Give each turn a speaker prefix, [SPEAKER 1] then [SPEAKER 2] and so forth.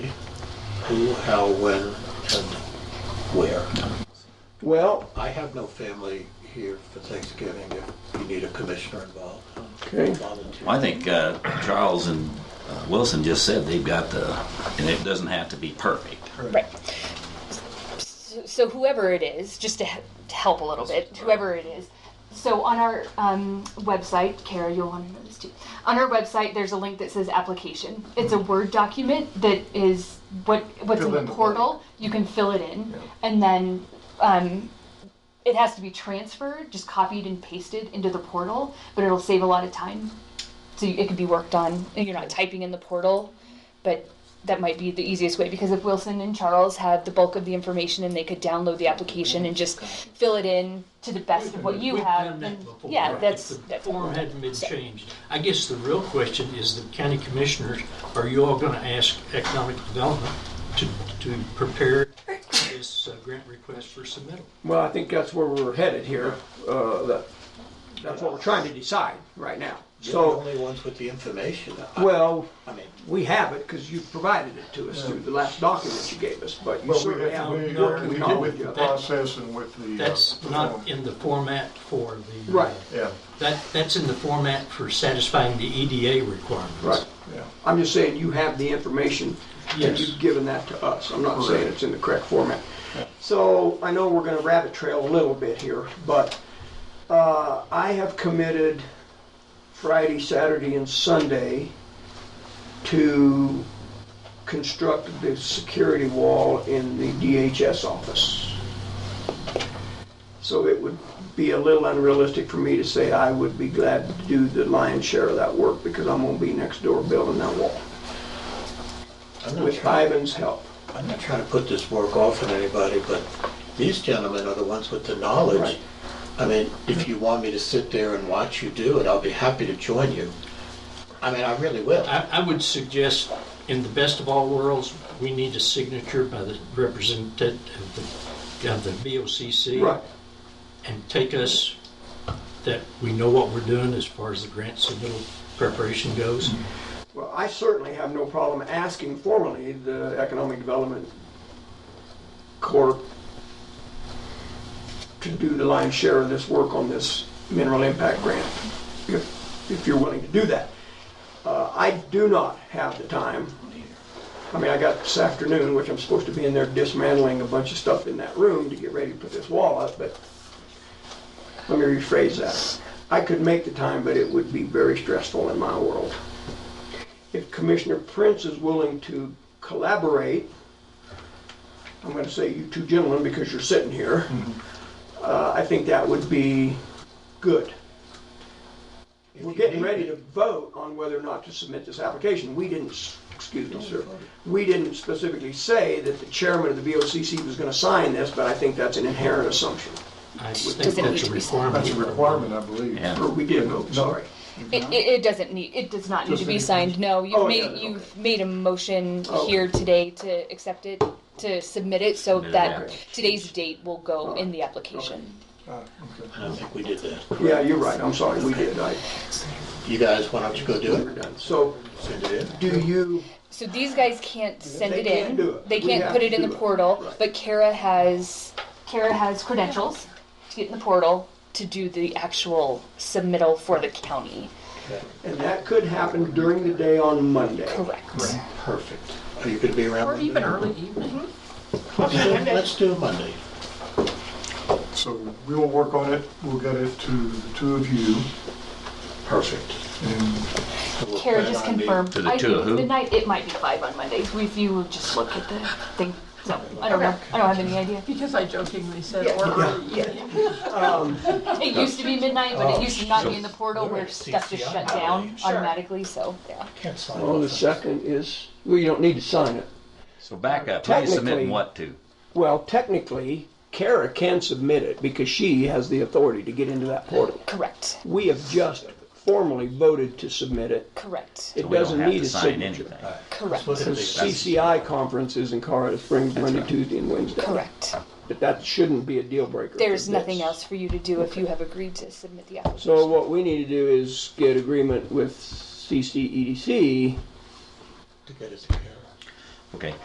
[SPEAKER 1] who, how, when, and where.
[SPEAKER 2] Well,
[SPEAKER 1] I have no family here for Thanksgiving if you need a commissioner involved.
[SPEAKER 2] okay,
[SPEAKER 1] Volunteer.
[SPEAKER 3] I think uh, Charles and uh, Wilson just said they've got the, and it doesn't have to be perfect.
[SPEAKER 4] Right. So, so whoever it is, just to, he- to help a little bit, whoever it is. So on our um, website, Kara, you'll want to know this too. On our website, there's a link that says application. It's a Word document that is what what's in
[SPEAKER 5] Fill
[SPEAKER 4] the
[SPEAKER 5] in the
[SPEAKER 4] portal. You can fill it in, and then um, it has to be transferred, just copied and pasted into the portal. But it'll save a lot of time, so it could be worked on. and You're not typing in the portal, but that might be the easiest way because if Wilson and Charles had the bulk of the information and they could download the application and just fill it in to the best of what you
[SPEAKER 6] We've
[SPEAKER 4] have,
[SPEAKER 6] done
[SPEAKER 4] then
[SPEAKER 6] that before.
[SPEAKER 4] yeah,
[SPEAKER 6] If
[SPEAKER 4] that's
[SPEAKER 6] The
[SPEAKER 4] that's
[SPEAKER 6] form hadn't been changed. I guess the real question is the county commissioners, are you all gonna ask economic development to, to prepare this uh, grant request for submittal?
[SPEAKER 2] well, I think that's where we're headed here. Uh, that, that's what we're trying to decide right now.
[SPEAKER 1] You're the
[SPEAKER 2] So,
[SPEAKER 1] only ones with the information. I-
[SPEAKER 2] well,
[SPEAKER 1] I mean,
[SPEAKER 2] we have it because you provided it to us through the last document you gave us, but you
[SPEAKER 5] But we, we,
[SPEAKER 2] certainly haven't
[SPEAKER 6] no,
[SPEAKER 5] we
[SPEAKER 2] worked
[SPEAKER 5] did with
[SPEAKER 2] knowledge
[SPEAKER 5] the
[SPEAKER 2] of it.
[SPEAKER 5] process and with the. uh,
[SPEAKER 6] That's
[SPEAKER 5] the form.
[SPEAKER 6] not in the format for the. uh,
[SPEAKER 2] Right.
[SPEAKER 5] Yeah,
[SPEAKER 6] That, that's in the format for satisfying the EDA requirements.
[SPEAKER 2] Right.
[SPEAKER 5] yeah.
[SPEAKER 2] I'm just saying you have the information and
[SPEAKER 6] Yes.
[SPEAKER 2] you've given that to us. I'm not saying it's in the correct format. So I know we're gonna rabbit trail a little bit here, but uh, I have committed Friday, Saturday, and Sunday to construct the security wall in the DHS office. So it would be a little unrealistic for me to say I would be glad to do the lion's share of that work because I'm gonna be next door building that wall
[SPEAKER 1] I'm not
[SPEAKER 2] with
[SPEAKER 1] trying,
[SPEAKER 2] Ivan's help.
[SPEAKER 1] I'm not trying to put this work off on anybody, but these gentlemen are the ones with the knowledge.
[SPEAKER 2] Right.
[SPEAKER 1] I mean, if you want me to sit there and watch you do it, I'll be happy to join you. I mean, I really will.
[SPEAKER 6] I, I would suggest, in the best of all worlds, we need a signature by the representative of the, of the BOCC.
[SPEAKER 2] Right.
[SPEAKER 6] And take us, that we know what we're doing as far as the grant submittal preparation goes.
[SPEAKER 2] Well, I certainly have no problem asking formally the Economic Development Corp to do the lion's share of this work on this mineral impact grant, if, if you're willing to do that. Uh, I do not have the time. I mean, I got this afternoon, which I'm supposed to be in there dismantling a bunch of stuff in that room to get ready to put this wall up, but let me rephrase that. I could make the time, but it would be very stressful in my world if Commissioner Prince is willing to collaborate, I'm going to say you two gentlemen because you're sitting here,
[SPEAKER 1] Mm-hmm.
[SPEAKER 2] uh, I think that would be good.
[SPEAKER 1] If
[SPEAKER 2] We're
[SPEAKER 1] you
[SPEAKER 2] getting
[SPEAKER 1] need
[SPEAKER 2] ready
[SPEAKER 1] me-
[SPEAKER 2] to vote on whether or not to submit this application. We didn't, s- excuse me, sir, we didn't specifically say that the chairman of the VOCC was going to sign this, but I think that's an inherent assumption.
[SPEAKER 6] I
[SPEAKER 4] Does
[SPEAKER 6] think
[SPEAKER 4] it need
[SPEAKER 6] that's
[SPEAKER 4] to
[SPEAKER 6] a
[SPEAKER 4] be signed?
[SPEAKER 6] requirement.
[SPEAKER 5] That's a requirement, I believe.
[SPEAKER 3] Yeah.
[SPEAKER 2] Or we did vote, sorry.
[SPEAKER 4] It, it, it doesn't need. It does not need
[SPEAKER 5] Just
[SPEAKER 4] to be
[SPEAKER 5] need-
[SPEAKER 4] signed. No, you've
[SPEAKER 2] Oh,
[SPEAKER 4] made
[SPEAKER 2] yeah,
[SPEAKER 4] you've made a motion
[SPEAKER 2] Oh.
[SPEAKER 4] here today to accept it, to submit it, so
[SPEAKER 3] Submit it,
[SPEAKER 4] that
[SPEAKER 3] okay.
[SPEAKER 4] today's date will go in the application.
[SPEAKER 5] Ah, okay.
[SPEAKER 1] I don't think we did that.
[SPEAKER 2] Yeah, you're right, I'm sorry, we did, I,
[SPEAKER 1] You guys why don't you go do
[SPEAKER 2] we're
[SPEAKER 1] it?
[SPEAKER 2] done. So,
[SPEAKER 1] Send it in.
[SPEAKER 2] do you,
[SPEAKER 4] So these guys can't send
[SPEAKER 2] They
[SPEAKER 4] it
[SPEAKER 2] can't
[SPEAKER 4] in.
[SPEAKER 2] do it.
[SPEAKER 4] They
[SPEAKER 2] We
[SPEAKER 4] can't
[SPEAKER 2] have
[SPEAKER 4] put
[SPEAKER 2] to
[SPEAKER 4] it in
[SPEAKER 2] do
[SPEAKER 4] the
[SPEAKER 2] it.
[SPEAKER 4] portal.
[SPEAKER 2] Right.
[SPEAKER 4] But Kara has Kara has credentials to get in the portal to do the actual submittal for the county.
[SPEAKER 2] and that could happen during the day on Monday.
[SPEAKER 4] Correct.
[SPEAKER 1] Perfect. Are you gonna be around?
[SPEAKER 7] Or
[SPEAKER 1] Monday?
[SPEAKER 7] even early evening.
[SPEAKER 1] Let's do- Let's do Monday.
[SPEAKER 5] So we will work on it, we'll get it to the two of you,
[SPEAKER 1] Perfect.
[SPEAKER 5] and
[SPEAKER 1] We'll
[SPEAKER 4] Kara
[SPEAKER 1] plan
[SPEAKER 4] just
[SPEAKER 1] on meeting-
[SPEAKER 4] confirmed.
[SPEAKER 3] To the
[SPEAKER 4] I
[SPEAKER 3] two
[SPEAKER 4] think
[SPEAKER 3] of who?
[SPEAKER 4] midnight. It might be five on Mondays. We, if you would just look at the thing. So I don't know. I don't have any idea.
[SPEAKER 7] Because I jokingly said, or early evening.
[SPEAKER 4] It used to be midnight, but it used to not be in the portal where
[SPEAKER 1] Sure.
[SPEAKER 4] stuff just shut
[SPEAKER 1] CCI.
[SPEAKER 4] down
[SPEAKER 7] Sure.
[SPEAKER 4] automatically. So yeah.
[SPEAKER 1] Can't sign
[SPEAKER 2] Well, the
[SPEAKER 1] off.
[SPEAKER 2] second is, well, you don't need to sign it.
[SPEAKER 3] So back up, who are you submitting
[SPEAKER 2] Technically-
[SPEAKER 3] what to?
[SPEAKER 2] Well, technically, Kara can submit it because she has the authority to get into that portal.
[SPEAKER 4] Correct.
[SPEAKER 2] We have just formally voted to submit it.
[SPEAKER 4] Correct.
[SPEAKER 2] It
[SPEAKER 3] We don't
[SPEAKER 2] doesn't
[SPEAKER 3] have
[SPEAKER 2] need
[SPEAKER 3] to
[SPEAKER 2] a
[SPEAKER 3] sign
[SPEAKER 2] signature.
[SPEAKER 3] anything.
[SPEAKER 4] Correct.
[SPEAKER 1] What
[SPEAKER 2] The
[SPEAKER 1] is it?
[SPEAKER 2] CCI conference is in Colorado Springs Monday, Tuesday, and Wednesday.
[SPEAKER 4] Correct.
[SPEAKER 2] But that shouldn't be a deal breaker.
[SPEAKER 4] There's
[SPEAKER 2] for this.
[SPEAKER 4] nothing else for you to do if you have agreed to submit the application.
[SPEAKER 2] So what we need to do is get E agreement with CCEDC
[SPEAKER 1] To get it to Kara.
[SPEAKER 3] Okay.